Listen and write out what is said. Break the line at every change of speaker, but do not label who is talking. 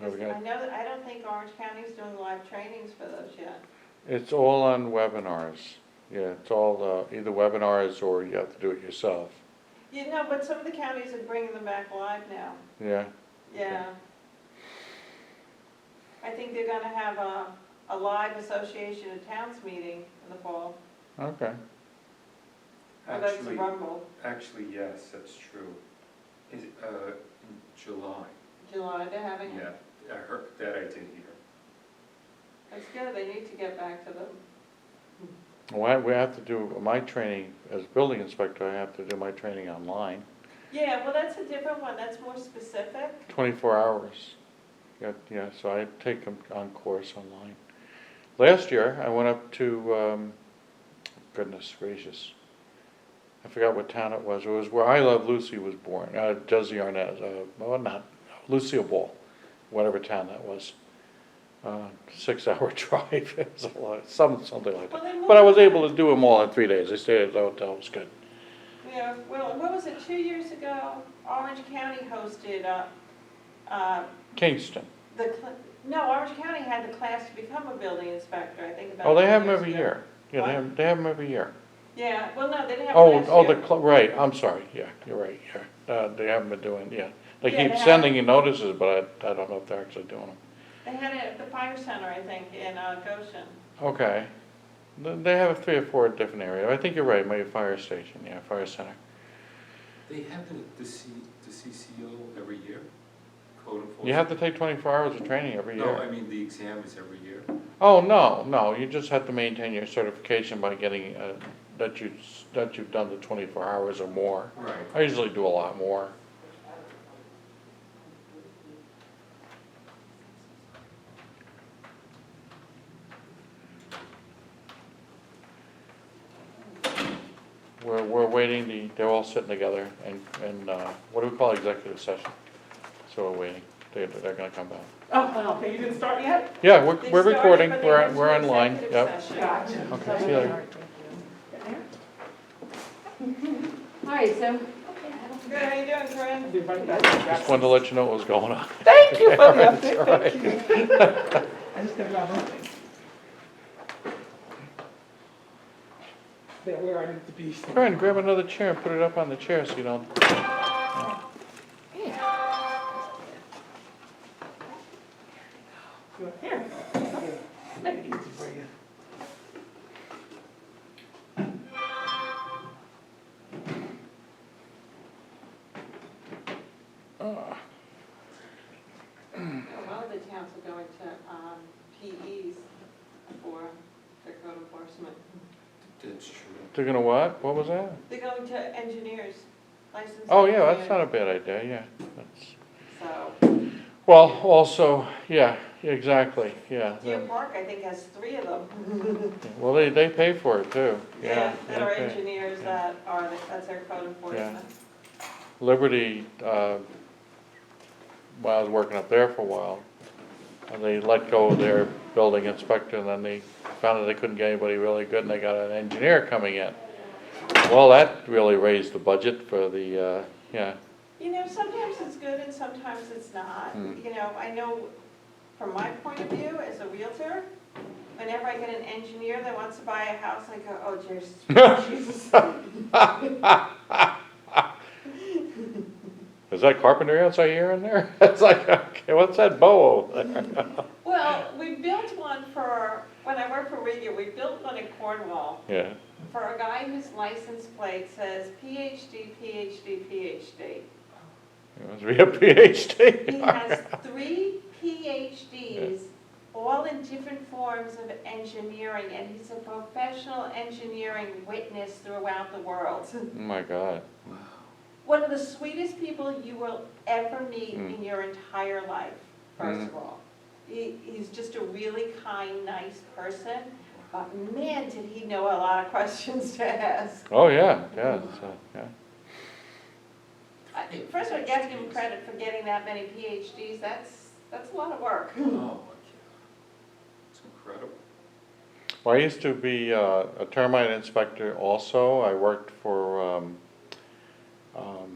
There we
I
go.
know, that- I don't think Orange County's doing live trainings for those yet.
It's all on webinars. Yeah, it's all uh, either webinars or you have to do it yourself.
You know, but some of the counties are bringing them back live now,
Yeah,
yeah. I think they're gonna have a, a live association of towns meeting in the fall,
okay.
or that's the
Actually-
Rumble,
Actually, yes, that's true. Is, uh, in July,
July, they're having it.
yeah, I heard, that I did hear.
That's good, they need to get back to them.
Well, I- we have to do, my training, as building inspector, I have to do my training online,
Yeah, well, that's a different one, that's more specific.
twenty-four hours. Yeah, yeah, so I take them on course online. Last year, I went up to, um, goodness gracious, I forgot what town it was, it was where I Love Lucy was born, uh, Desi Arnaz, uh, well, not, Lucille Ball, whatever town that was. Uh, six-hour drive, it was a lot, some, something like that. But I was able to do them all in three days, I stayed at the hotel, it was good.
Yeah, well, what was it, two years ago, Orange County hosted, uh, uh,
Kingston.
the, cl- no, Orange County had the class to become a building inspector, I think about.
Oh, they
two
have them
years
every
ago.
year. Yeah, they have, they have them every year.
Yeah, well, no, they didn't have
Oh,
it
oh,
last
the,
year.
cl- right, I'm sorry, yeah, you're right, yeah. Uh, they haven't been doing, yeah. They
Yeah, they
keep
haven't.
sending you notices, but I, I don't know if they're actually doing them.
They had it at the fire center, I think, in uh, Goshen.
Okay. Th- They have three or four different areas. I think you're right, maybe fire station, yeah, fire center.
They happen at the C, the CCO every year, code enforcement.
You have to take twenty-four hours of training every
No, I
year.
mean, the exam is every year.
Oh, no, no, you just have to maintain your certification by getting, uh, that you, s- that you've done the twenty-four hours or more.
Right.
I usually do a lot more. We're, we're waiting, the, they're all sitting together and, and, uh, what do we call executive session? So we're waiting, they, they're gonna come back.
Oh, well, you didn't start yet?
Yeah, we're,
They
we're
started,
recording,
but they
we're,
went to
we're online,
executive
yep.
session.
Gotcha.
Okay, see you later.
All right, so
Good, how you doing, Corinne?
Just wanted to let you know what was going on.
Thank you for the
Alright,
update,
alright.
thank you. I just never got home. That where I need to be.
Karen, grab another chair and put it up on the chair so you don't
Here. Make it easy for you.
A lot of the towns are going to um, PEs for their code enforcement.
That's true.
They're gonna what? What was that?
They're going to engineers, licensed.
Oh, yeah, that's
engineers.
not a bad idea, yeah. That's-
So,
Well, also, yeah, exactly, yeah.
Deer
then-
Park, I think, has three of them.
Well, they, they pay for it too, yeah.
That are
they pay.
engineers
yeah.
that are, that's their code enforcement.
Liberty, uh, while I was working up there for a while, and they let go of their building inspector, and then they found that they couldn't get anybody really good, and they got an engineer coming in. Well, that really raised the budget for the, uh, yeah,
You know, sometimes it's good and sometimes it's not.
Hmm.
You know, I know from my point of view as a realtor, whenever I get an engineer that wants to buy a house, I go, oh, Jesus, Jesus.
is that carpentry outside here and there? It's like, okay, what's that bow over there?
Well, we built one for, when I worked for Riga, we built one in Cornwall
Yeah,
for a guy whose license plate says PhD, PhD, PhD.
it must be a PhD.
He has three PhDs, all in different forms of engineering, and he's a professional engineering witness throughout the world.
Oh My God,
One of the sweetest people you will ever meet
Mm.
in your entire life, first of all. He, he's just a really kind, nice person, but man, did he know a lot of questions to ask.
oh, yeah, yeah, so, yeah.
I- First of all, I gotta give him credit for getting that many PhDs, that's, that's a lot of work.
Oh, okay. It's incredible.
Well, I used to be uh, a termite inspector also. I worked for um, um,